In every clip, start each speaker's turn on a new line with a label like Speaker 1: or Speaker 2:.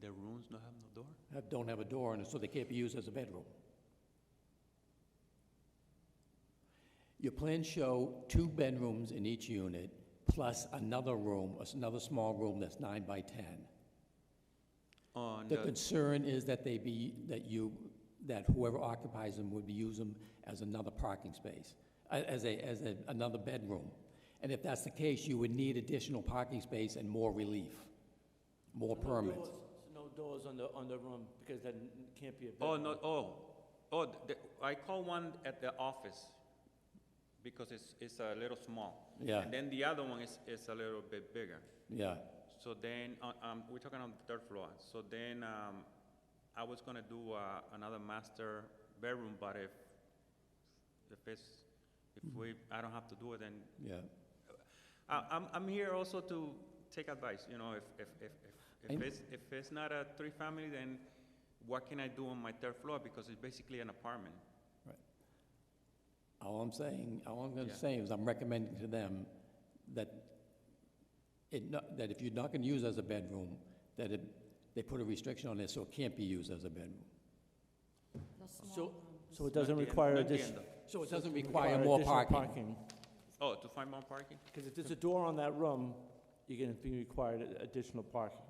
Speaker 1: The rooms not have no door?
Speaker 2: Have- don't have a door, and so they can't be used as a bedroom. Your plans show two bedrooms in each unit, plus another room, another small room that's nine by 10.
Speaker 1: On
Speaker 2: The
Speaker 1: the,
Speaker 2: concern is that they be, that you, that whoever occupies them would be use them as another parking space, a- as a, as a, another bedroom. And if that's the case, you would need additional parking space and more relief, more
Speaker 3: No
Speaker 2: permits.
Speaker 3: doors- No doors on the, on the room, because that n- can't be a bedroom.
Speaker 1: oh, no, oh, oh, the- I call one at the office because it's, it's a little small.
Speaker 2: Yeah.
Speaker 1: And then the other one is, is a little bit bigger.
Speaker 2: Yeah,
Speaker 1: So then, uh, um, we're talking on the third floor. So then, um, I was gonna do, uh, another master bedroom, but if, if it's, if we, I don't have to do it, then,
Speaker 2: yeah.
Speaker 1: I, I'm, I'm here also to take advice, you know, if, if, if, if- if
Speaker 2: And-
Speaker 1: it's, if it's not a three-family, then what can I do on my third floor? Because it's basically an apartment.
Speaker 2: Right. All I'm saying, all I'm
Speaker 1: Yeah.
Speaker 2: gonna say is I'm recommending to them that it, not- that if you're not gonna use it as a bedroom, that it, they put a restriction on it so it can't be used as a bedroom.
Speaker 4: The small
Speaker 3: So,
Speaker 4: room.
Speaker 3: so it
Speaker 1: Not
Speaker 3: doesn't
Speaker 1: the end-
Speaker 3: require
Speaker 1: not the
Speaker 3: addition.
Speaker 1: end of-
Speaker 2: So it
Speaker 3: so
Speaker 2: doesn't
Speaker 3: to
Speaker 2: require more
Speaker 3: additional
Speaker 2: parking.
Speaker 1: Oh, to find more parking?
Speaker 3: Because if there's a door on that room, you're gonna be required a- additional parking.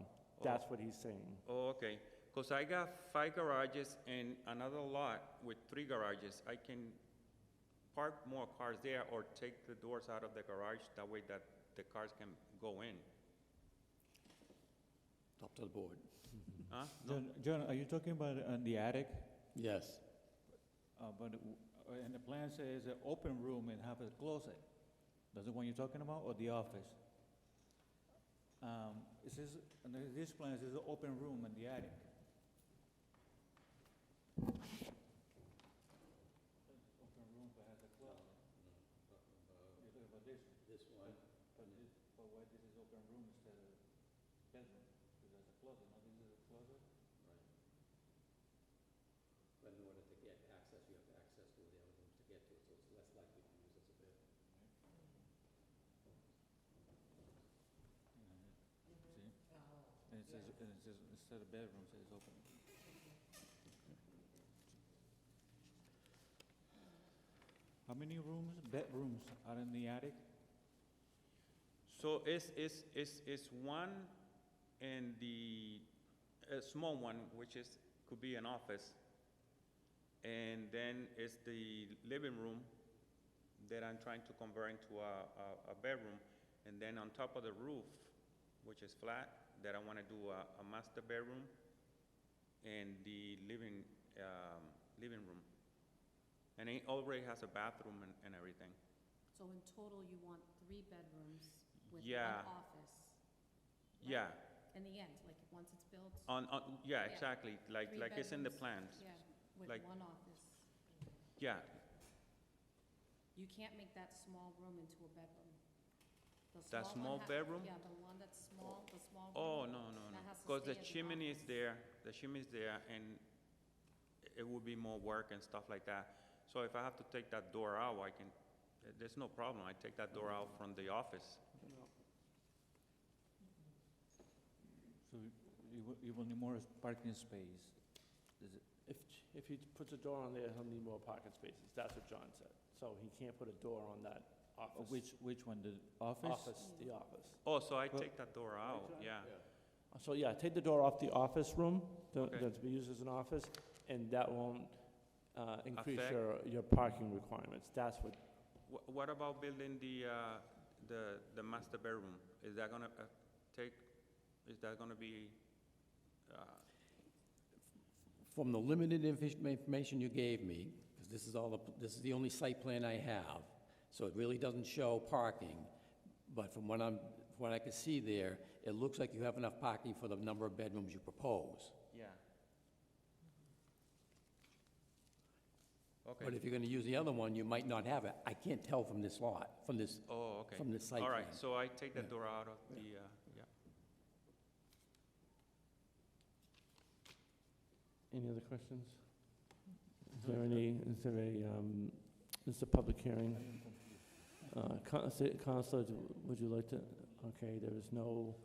Speaker 3: That's what he's saying.
Speaker 1: Oh, okay. Because I got five garages and another lot with three garages. I can park more cars there or take the doors out of the garage, that way that the cars can go in.
Speaker 2: Up to the board.
Speaker 1: Huh?
Speaker 5: John, John, are you talking about uh, the attic?
Speaker 2: Yes,
Speaker 5: Uh, But, w- uh, and the plan says an open room and have a closet. That's the one you're talking about, or the office? Um, It says, and then this plan says an open room in the attic. Open room but has a closet. You're talking about this? This one. But this, but why this is open room instead of bedroom? Because there's a closet, now this is a closet?
Speaker 6: But in order to get access, you have to access to the other rooms to get to it, so it's less likely to use as a bedroom.
Speaker 5: See? And it says, and it says, instead of bedroom, it says open. How many rooms, bedrooms are in the attic?
Speaker 1: So it's, it's, it's, it's one and the, a small one, which is, could be an office. And then it's the living room that I'm trying to convert into a, a, a bedroom. And then on top of the roof, which is flat, that I want to do a, a master bedroom and the living, um, living room. And it already has a bathroom and, and everything.
Speaker 4: So in total, you want three bedrooms with one
Speaker 1: Yeah.
Speaker 4: office? right?
Speaker 1: Yeah.
Speaker 4: In the end, like, once it's built?
Speaker 1: On, on, yeah,
Speaker 4: Yeah.
Speaker 1: exactly, like,
Speaker 4: three
Speaker 1: like it's in the plans.
Speaker 4: bedrooms, Yeah, with
Speaker 1: like-
Speaker 4: one office.
Speaker 1: Yeah,
Speaker 4: You can't make that small room into a bedroom. The
Speaker 1: That
Speaker 4: one
Speaker 1: small
Speaker 4: ha-
Speaker 1: bedroom?
Speaker 4: Yeah, the one that's small, the small
Speaker 1: oh,
Speaker 4: room.
Speaker 1: no, no, no,
Speaker 4: that has to
Speaker 1: because the
Speaker 4: stay as an
Speaker 1: chimney is
Speaker 4: office.
Speaker 1: there, the chimney is there, and it would be more work and stuff like that. So if I have to take that door out, I can, there's no problem, I take that door out from the office.
Speaker 5: So you will, you will need more parking space. Is it,
Speaker 3: If, if he puts a door on there, he'll need more parking spaces. That's what John said. So he can't put a door on that office.
Speaker 5: which, which one, the office?
Speaker 3: Office, the office.
Speaker 1: Oh, so I
Speaker 5: Well-
Speaker 1: take that door out, yeah.
Speaker 3: So, yeah, take the door off the office room, the-
Speaker 1: Okay.
Speaker 3: that's be used as an office, and that won't uh, increase
Speaker 1: Affect-
Speaker 3: your, your parking requirements. That's what,
Speaker 1: Wha- What about building the, uh, the, the master bedroom? Is that gonna uh, take, is that gonna be, uh,
Speaker 2: from the limited inf- information you gave me, because this is all, the- this is the only site plan I have, so it really doesn't show parking, but from what I'm, from what I can see there, it looks like you have enough parking for the number of bedrooms you propose.
Speaker 1: yeah? Okay.
Speaker 2: But if you're gonna use the other one, you might not have it. I can't tell from this lot, from this,
Speaker 1: Oh, okay.
Speaker 2: from the site
Speaker 1: All
Speaker 2: plan.
Speaker 1: right, so I take that door out of the, uh, yeah.
Speaker 3: any other questions? Is there any, is there a, um, this is a public hearing. Uh, Counselor, would you like to, okay, there is no